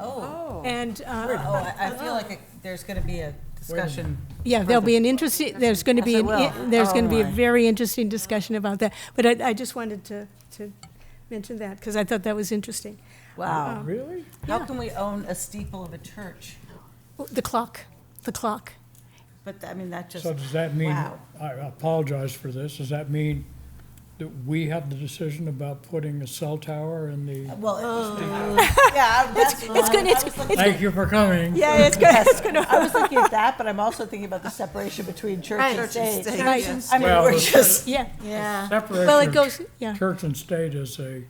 Oh. And, uh, Oh, I I feel like it- there's going to be a discussion. yeah, there'll be an interesting, there's going to be, Yes, an I will. i- there's going to be a Oh, my. very interesting discussion about that. But I, I just wanted to, to mention that, because I thought that was interesting. Wow. Really? How can we own a steeple of a church? Oh, The clock, the clock. But, I mean, that just, So does that mean, Wow. I apologize for this, does that mean that we have the decision about putting a cell tower in the? well, it- yeah, I- that's. Oh. It's good, it's, it's, Thank you for coming. yeah, it's good, it's good. I was looking at that, but I'm also thinking about the separation between church and state. Right, I mean, Well, we're it's- just, Yeah, yeah. well, it Separation of goes, yeah. church and state is a,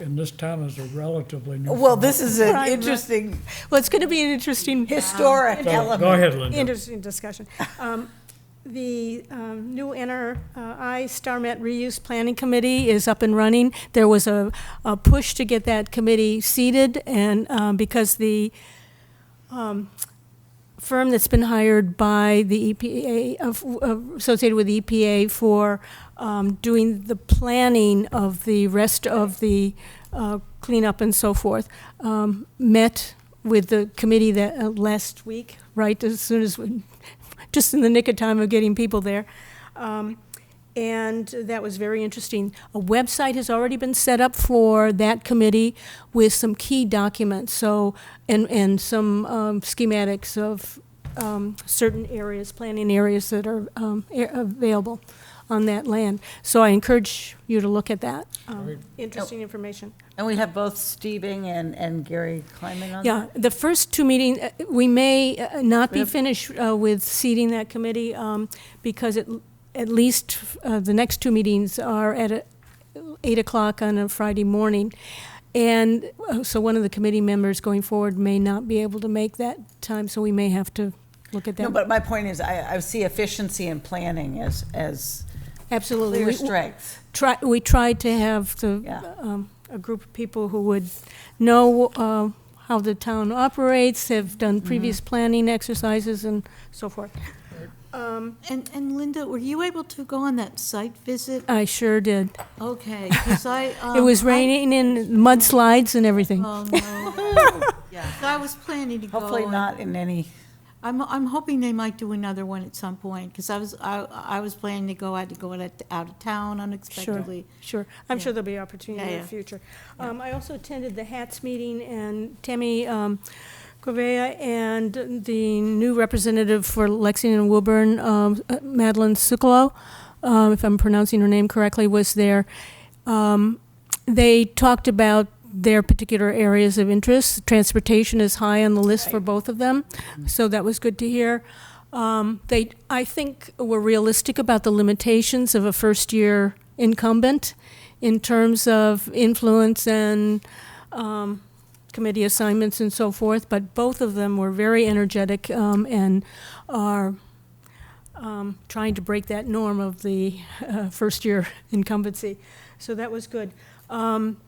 in this town is a relatively new. Well, this is Right, an right. interesting Well, it's going to be an interesting. historic So, element. Go ahead, Linda. Interesting discussion. Um, The um, new NRI StarMet Reuse Planning Committee is up and running. There was a a push to get that committee seated, and um, because the um, firm that's been hired by the EPA, of- of- associated with the EPA for um, doing the planning of the rest of the uh, cleanup and so forth, um, met with the committee that, uh, last week, right, as soon as, we- just in the nick of time of getting people there. Um, And that was very interesting. A website has already been set up for that committee with some key documents, so, and, and some um, schematics of um, certain areas, planning areas that are um, a- available on that land. So I encourage you to look at that. Um, Interesting information. And we have both Steving and, and Gary Kleiman on Yeah, the first two meeting, uh, we may uh, not be finished uh, with seating that committee, um, because at, at least uh, the next two meetings are at a- eight o'clock on a Friday morning. And uh, so one of the committee members going forward may not be able to make that time, so we may have to look at No, that. but my point is, I, I see efficiency in planning as, as Absolutely. clear We- strengths. try, we tried to have Yeah. the, um, a group of people who would know, uh, how the town operates, have done Mm-hmm. previous planning exercises and so forth. And, and Linda, were you able to go on that site visit? I sure did. Okay, because I. It um, was I- raining and mudslides and everything. Oh, no. I was planning to go. Hopefully and not in any, I'm, I'm hoping they might do another one at some point, because I was, I, I was planning to go, I had to go out of- out of town Sure, unexpectedly. sure. I'm sure there'll be opportunity Yeah, in the yeah. future. Um, I also attended the HATS meeting, and Tammy um, Correa and the new representative for Lexington and Woburn, um, Madeline Sukalo, um, if I'm pronouncing her name correctly, was there. Um, They talked about their particular areas of interest. Transportation is high on the list for both of them, so that was good to hear. Um, They, I think, were realistic about the limitations of a first-year incumbent in terms of influence and um, committee assignments and so forth, but both of them were very energetic um, and are um, trying to break that norm of the uh, first-year incumbency. So that was good. Um,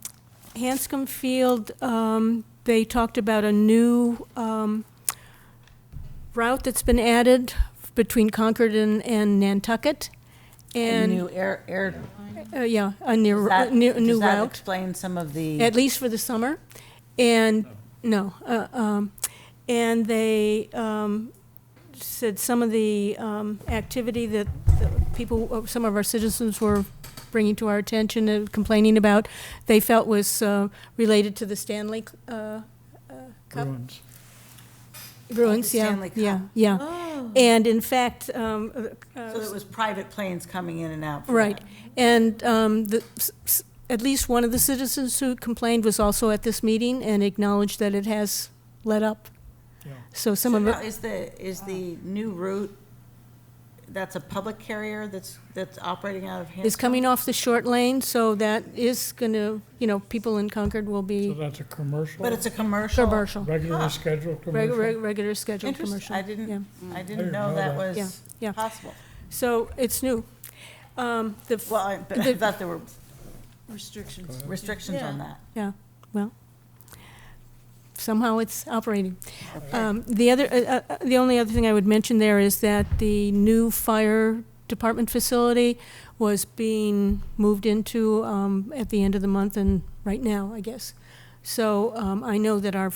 Hanscom Field, um, they talked about a new um, route that's been added between Concord and, and Nantucket. a And, new air, air. uh, yeah, a new, that- new new Does that route explain some of the, at least for the summer. And, no, uh, um, and they um, said some of the um, activity that the people, uh, some of our citizens were bringing to our attention and complaining about, they felt was uh, related to the Stanley Oh, uh, uh, Cup Bruins. Bruins, yeah, Stanley Cup. yeah, yeah. Oh, And in fact, um, uh, so it was private planes coming in and out for Right, that. and um, the, s- s- at least one of the citizens who complained was also at this meeting and acknowledged that it has let up. Yeah. So some So of now it, is the, is the new route, that's a public carrier that's, that's operating out of Hanscom? is coming off the short lane, so that is gonna, you know, people in Concord will So be that's a commercial, But it's a commercial? commercial, regularly scheduled reg- reg- commercial? regular scheduled Interesting, commercial. I didn't, I didn't didn't know know that that. Yeah, was yeah. possible. So it's new. Um, The, f- Well, I- but I The- thought there were restrictions. restrictions on that. yeah, well, somehow it's operating. Um, The other, uh, uh, the only other thing I would mention there is that the new fire department facility was being moved into um, at the end of the month and right now, I guess. So um, I know that our